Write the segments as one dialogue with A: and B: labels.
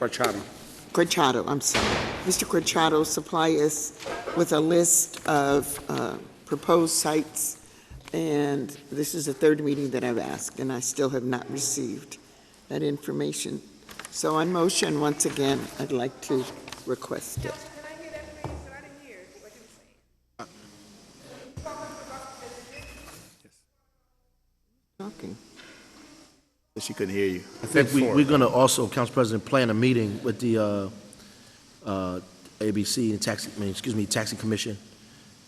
A: Fachado.
B: Corchado, I'm sorry. Mr. Corchado, supply us with a list of uh, proposed sites, and this is the third meeting that I've asked, and I still have not received that information. So on motion, once again, I'd like to request it.
C: Can I hear that, please? So I didn't hear what you were saying.
B: Talking.
D: She couldn't hear you.
E: I think we, we're gonna also, Council President, plan a meeting with the, uh, uh, ABC and taxi, I mean, excuse me, taxi commission,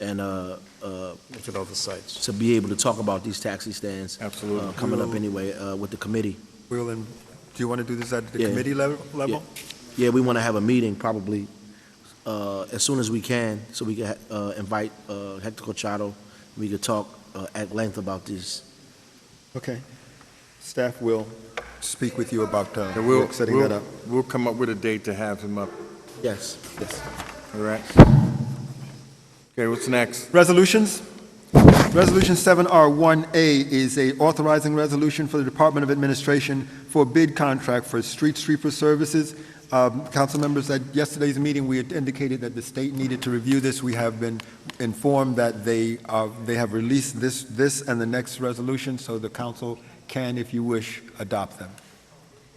E: and, uh, uh,
D: Look at all the sites.
E: to be able to talk about these taxi stands.
D: Absolutely.
E: uh, Coming up anyway, uh, with the committee.
F: We'll, then- do you want to do this at the
E: Yeah.
F: committee level? level?
E: Yeah, we wanna have a meeting probably, uh, as soon as we can, so we can, uh, invite, uh, Hector Cochado. We could talk, uh, at length about this.
D: Okay. Staff will,
F: Speak with you about uh,
D: And we'll-
F: setting
D: we'll-
F: that up.
A: We'll come up with a date to have him up,
E: Yes.
D: yes.
A: all right? Okay, what's next?
F: Resolutions? Resolution 7R1A is a authorizing resolution for the Department of Administration for bid contract for street sweeper services. Um, Council members, at yesterday's meeting, we had indicated that the state needed to review this. We have been informed that they, uh, they have released this, this and the next resolution, so the council can, if you wish, adopt them.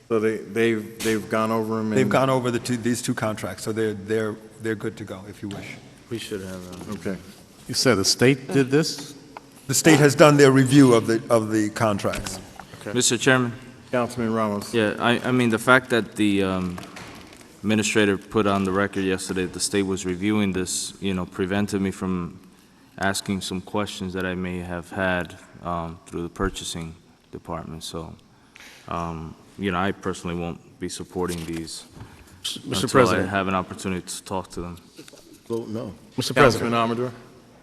A: So they, they've, they've gone over him and...
F: They've gone over the two, these two contracts, so they're, they're, they're good to go, if you wish.
E: We should have,
A: Okay.
G: You said the state did this?
F: The state has done their review of the, of the contracts.
H: Mr. Chairman,
A: Councilman Ramos.
H: yeah, I, I mean, the fact that the um, administrator put on the record yesterday that the state was reviewing this, you know, prevented me from asking some questions that I may have had um, through the purchasing department, so, um, you know, I personally won't be supporting these
G: Mr.
H: until I
G: President,
H: have an opportunity to talk to them.
E: vote no.
A: Councilman
G: Mr. President,
A: Amador.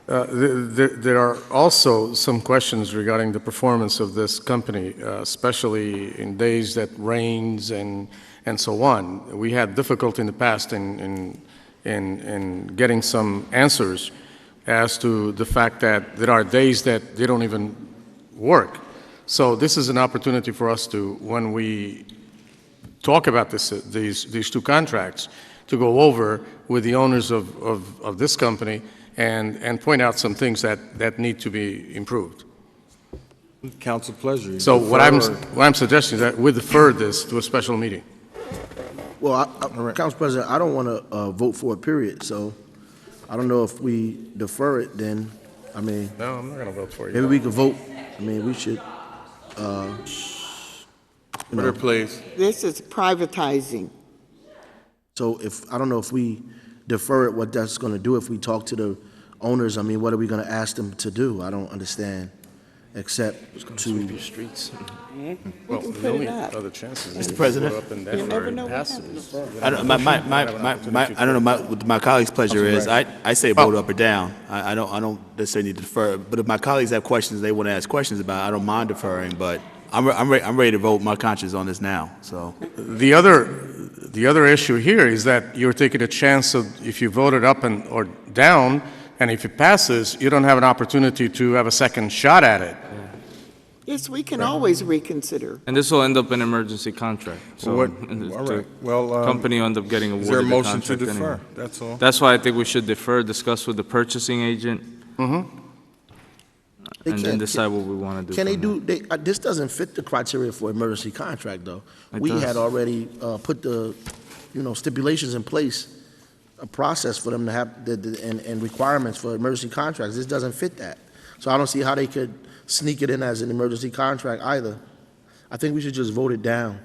G: uh, th- th- there are also some questions regarding the performance of this company, uh, especially in days that rains and, and so on. We had difficulty in the past in, in, in, in getting some answers as to the fact that there are days that they don't even work. So this is an opportunity for us to, when we talk about this, uh, these, these two contracts, to go over with the owners of, of, of this company and, and point out some things that, that need to be improved.
A: Council pleasure. You
G: So what I'm,
A: prefer-
G: what I'm suggesting is that we defer this to a special meeting.
E: Well, I- I- Council President, I don't want to vote for it, period, so I don't know if we defer it, then, I mean,
G: No, I'm not going to vote for
E: maybe we could vote, I mean, we should, uh, you
A: Order,
E: know,
A: please.
B: This is privatizing.
E: so if, I don't know if we defer it, what that's going to do, if we talk to the owners, I mean, what are we going to ask them to do? I don't understand, except to,
G: streets. Hmm.
I: Hmm?
B: We can put it up.
G: chances.
D: Mr. President?
B: You never know what happens.
I: I don't, my, my, my, my, my- I don't know, my, what my colleague's pleasure is, I, I say vote
G: Oh.
I: up or down. I, I don't, I don't necessarily need to defer, but if my colleagues have questions they want to ask questions about, I don't mind deferring, but I'm, re- I'm ready, I'm ready to vote my conscience on this now, so.
G: The other, the other issue here is that you're taking a chance of, if you vote it up and, or down, and if it passes, you don't have an opportunity to have a second shot at it.
B: Yes, we can always reconsider.
H: And this will end up in emergency contract, so
A: What- All
H: the
A: right, well, um,
H: company will end up getting
A: is there a
H: awarded the
A: motion to
H: contract anyway.
A: defer? That's all.
H: That's why I think we should defer, discuss with the purchasing agent,
E: They
H: and
E: can't-
H: then decide what we want to do.
E: can they
H: from there.
E: do, they, uh, this doesn't fit the criteria for emergency contract, though.
H: It
E: We had
H: does.
E: already uh, put the, you know, stipulations in place, a process for them to have, the- the- and, and requirements for emergency contracts. This doesn't fit that. So I don't see how they could sneak it in as an emergency contract either. I think we should just vote it down.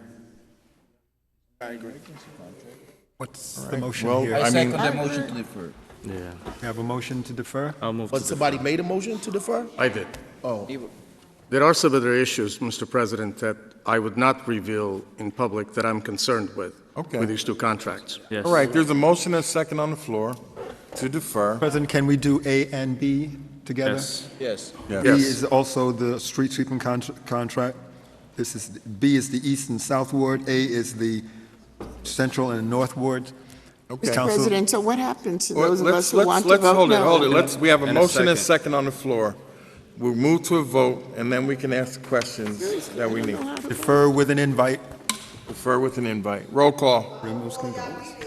F: What's the motion
A: well,
F: here?
A: I mean-
H: Yeah,
F: We have a motion to defer?
H: I'll move to
E: But somebody made a motion to defer?
G: I did.
E: Oh.
G: There are some other issues, Mr. President, that I would not reveal in public that I'm concerned with.
A: Okay.
G: With these two contracts.
H: Yes.
A: All right, there's a motion and a second on the floor to defer.
F: President, can we do A and B together?
A: Yes.
E: Yes.
F: B
A: Yes.
F: is also the street sweeping contr- contract. This is, B is the east and south ward, A is the central and north ward.
A: Okay.
F: Council-
B: President, so what happens to
A: Well,
B: those of
A: let's-
B: us who
A: let's-
B: want to
A: let's
B: vote
A: hold it,
B: no?
A: Hold it, let's, we have a
I: And a
A: motion and
I: second.
A: second on the floor. We'll move to a vote, and then we can ask questions that we need.
F: Defer with an invite.
A: Defer with an invite. Roll call.